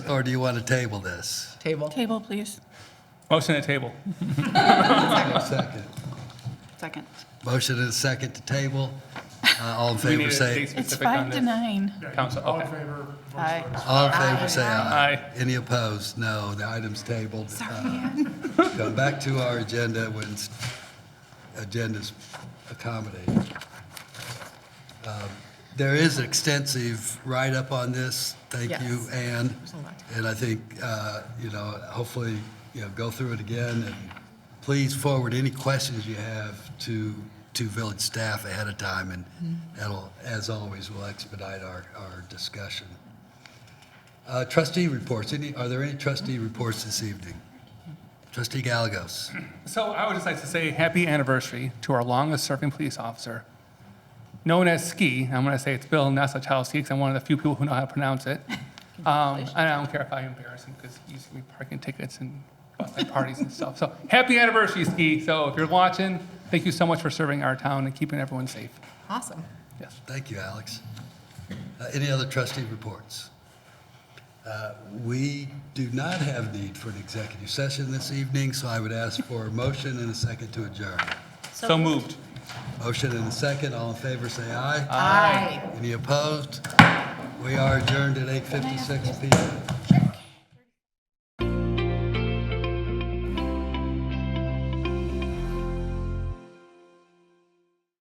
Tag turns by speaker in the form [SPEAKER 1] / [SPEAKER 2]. [SPEAKER 1] or do you want to table this?
[SPEAKER 2] Table.
[SPEAKER 3] Table, please.
[SPEAKER 4] Motion to table.
[SPEAKER 1] Second.
[SPEAKER 3] Second.
[SPEAKER 1] Motion and a second to table. Uh, All in
[SPEAKER 4] Do we need
[SPEAKER 1] favor
[SPEAKER 4] to
[SPEAKER 1] say,
[SPEAKER 4] be
[SPEAKER 3] It's
[SPEAKER 4] specific on
[SPEAKER 3] five to
[SPEAKER 4] this?
[SPEAKER 3] nine.
[SPEAKER 4] Council,
[SPEAKER 5] All in
[SPEAKER 4] okay.
[SPEAKER 5] favor? vote
[SPEAKER 3] Aye.
[SPEAKER 1] all in favor say aye.
[SPEAKER 4] Aye.
[SPEAKER 1] Any opposed? No, the item's tabled. Sorry. Come back to our agenda when s- agenda's accommodated. Um, There is extensive write-up on this. Thank
[SPEAKER 2] Yes.
[SPEAKER 1] you, Anne.
[SPEAKER 2] a lot to
[SPEAKER 1] And I think, uh, you know, hopefully, you know, go through it again, and please forward any questions you have to, to village staff ahead of time, and
[SPEAKER 2] Mm-hmm.
[SPEAKER 1] that'll, as always, will expedite our, our discussion. Uh, Trustee reports, any, are there any trustee reports this evening? Trustee Galagos,
[SPEAKER 4] So I would just like to say happy anniversary to our longest-serving police officer, known as Ski. I'm going to say it's Bill Nesselchowski because I'm one of the few people who know how to pronounce it. Um, And I don't care if I embarrass him because he used to give me parking tickets and busting parties and stuff. So happy anniversary, Ski. So if you're watching, thank you so much for serving our town and keeping everyone safe.
[SPEAKER 2] Awesome.
[SPEAKER 4] Yes.
[SPEAKER 1] thank you, Alex. Uh, Any other trustee reports? Uh, We do not have need for an executive session this evening, so I would ask for a motion and a second to adjourn.
[SPEAKER 4] So moved.
[SPEAKER 1] Motion and a second, all in favor, say aye.
[SPEAKER 2] Aye.
[SPEAKER 1] Any opposed? We are adjourned at 8:56 PM.